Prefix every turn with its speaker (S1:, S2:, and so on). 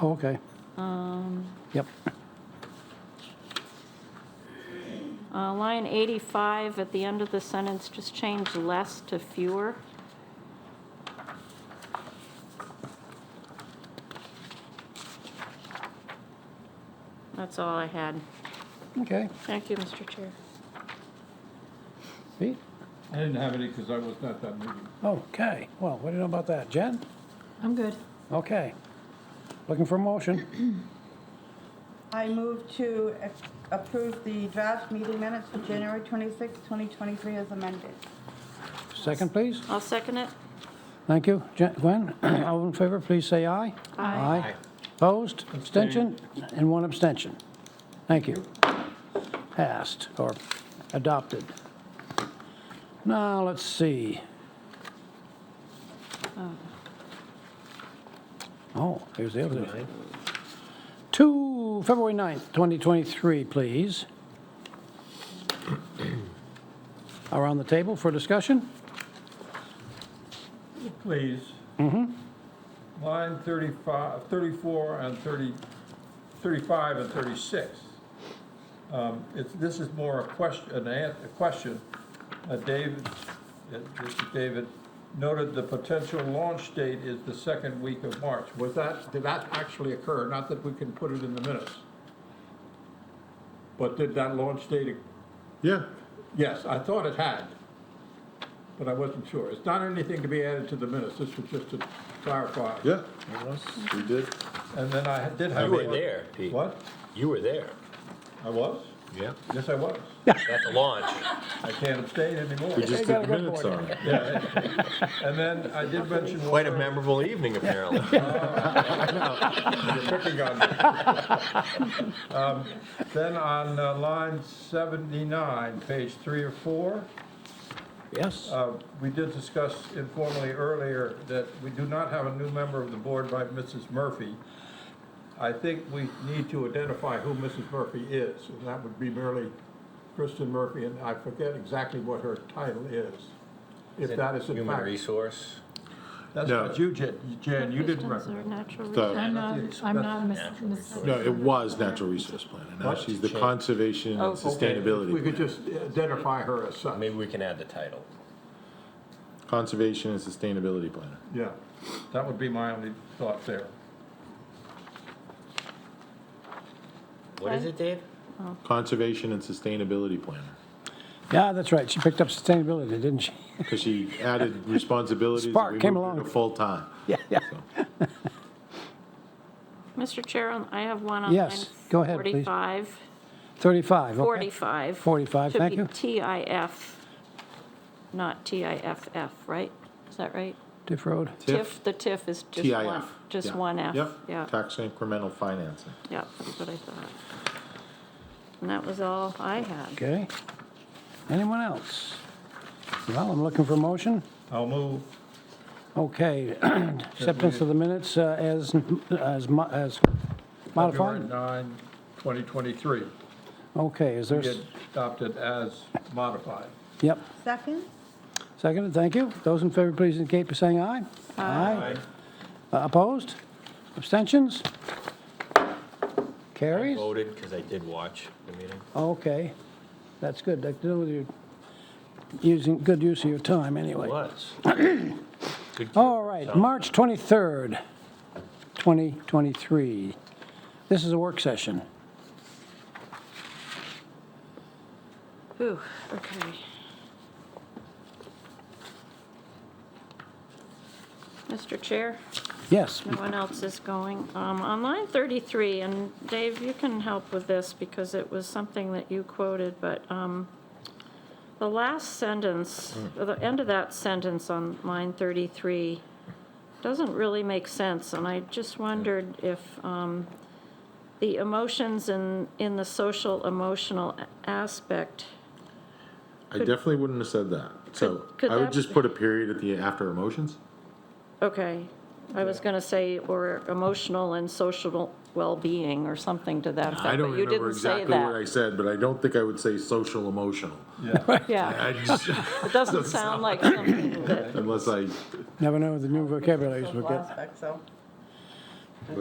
S1: Oh, okay.
S2: Um,
S1: Yep,
S3: Uh, Line 85, at the end of the sentence, just change less to fewer. That's all I had.
S1: okay.
S3: Thank you, Mr. Chair.
S1: Pete?
S4: I didn't have any because I was not at that meeting.
S1: Okay, well, what do you know about that? Jen?
S2: I'm good.
S1: Okay. Looking for a motion?
S5: I move to approve the draft meeting minutes for January 26, 2023 as amended.
S1: Second, please.
S3: I'll second it.
S1: Thank you. Jen- Gwen, all in favor, please say aye. Aye. Opposed, abstention, and one abstention. Thank you. Passed or adopted. Now, let's see. Oh, here's the other. thing. Two, February 9th, 2023, please. Around the table for discussion?
S4: Please. Line 35, 34 and 30, 35 and 36. Um, It's, this is more a question, an an- a question. Uh, David, uh, this is David noted the potential launch date is the second week of March. Was that, did that actually occur? Not that we can put it in the minutes. But did that launch date
S6: Yeah,
S4: Yes, I thought it had, but I wasn't sure. It's not anything to be added to the minutes, this was just to clarify.
S6: yeah. We did.
S4: And then I did have.
S7: You were
S4: one-
S7: there, Pete.
S4: What?
S7: You were there.
S4: I was?
S7: Yeah.
S4: Yes, I was.
S7: At the launch.
S4: I can't abstain anymore.
S6: We just did the minutes on it.
S4: Yeah. And then I did mention.
S7: Quite a
S4: one-
S7: memorable evening, apparently.
S4: You're picking on me. Um, Then on uh, line 79, page three or four.
S1: Yes?
S4: Uh, We did discuss informally earlier that we do not have a new member of the board by Mrs. Murphy. I think we need to identify who Mrs. Murphy is, and that would be merely Kristen Murphy, and I forget exactly what her title is. If that is in
S7: Human
S4: fact,
S7: resource.
S4: that's
S6: No.
S4: what you, Jan, Jan, you didn't
S3: Distance or
S4: recommend.
S3: natural
S6: The-
S3: resource.
S2: I'm not, I'm not Miss,
S7: Natural
S2: Miss-
S7: resource.
S6: No, it was natural resource plan, and now
S4: What?
S6: she's the
S3: Oh,
S6: conservation and
S4: Okay, We
S6: sustainability
S4: could
S6: plan.
S4: just identify her as such,
S7: Maybe we can add the title.
S6: Conservation and sustainability planner.
S4: yeah. That would be my only thought there.
S7: What is it, Dave?
S6: Conservation and sustainability planner,
S1: Yeah, that's right. She picked up sustainability, didn't she?
S6: because she added responsibilities. and
S1: Spark
S6: we
S1: came
S6: moved her
S1: along.
S6: to Full-time.
S1: Yeah, yeah.
S3: Mr. Chair, on- I have one on line
S1: Yes, go ahead, please.
S3: 45.
S1: 35, okay.
S3: 45.
S1: 45, thank you.
S3: Should be TIF, not TIFF, right? Is that right?
S1: Tiff Road.
S6: TIF.
S3: TIF, the TIF is just one,
S6: TIF.
S3: just
S6: Yeah.
S3: one F. Yeah,
S6: Yep, tax incremental financing.
S3: yeah, that's what I thought. And that was all I had.
S1: Okay. Anyone else? Well, I'm looking for a motion.
S4: I'll move,
S1: Okay, acceptance of the minutes uh, as, as mo- as
S4: February
S1: modified?
S4: 9, 2023,
S1: Okay, is there,
S4: be
S1: s-
S4: adopted as modified.
S1: yep,
S5: Second?
S1: seconded, thank you. Those in favor, please indicate by saying aye. Aye. Uh, Opposed? Abstentions?
S7: I
S1: Carries?
S7: voted because I did watch the meeting.
S1: Oh, Okay, that's good. That deal with your, using, good use of your time, anyway.
S7: Was. Good
S1: All right, March 23rd, 2023. This is a work session.
S3: Ooh, okay. Mr. Chair?
S1: Yes,
S3: No one else is going. Um, On line 33, and Dave, you can help with this because it was something that you quoted, but um, the last sentence,
S6: Hmm.
S3: the end of that sentence on line 33 doesn't really make sense, and I just wondered if um, the emotions in, in the social emotional aspect,
S6: I definitely wouldn't have said that. So
S3: could
S6: I would
S3: that-
S6: just put a period at the, after emotions.
S3: okay, I was going to say, or emotional and social well-being, or something to that effect.
S6: I don't
S3: but you
S6: remember
S3: didn't say
S6: exactly what
S3: that.
S6: I said, but I don't think I would say social emotional.
S4: Yeah.
S3: Yeah,
S6: I just,
S3: it doesn't sound like something that,
S6: unless I
S1: never know the new vocabularies we
S5: Social
S1: get.
S5: aspect, so.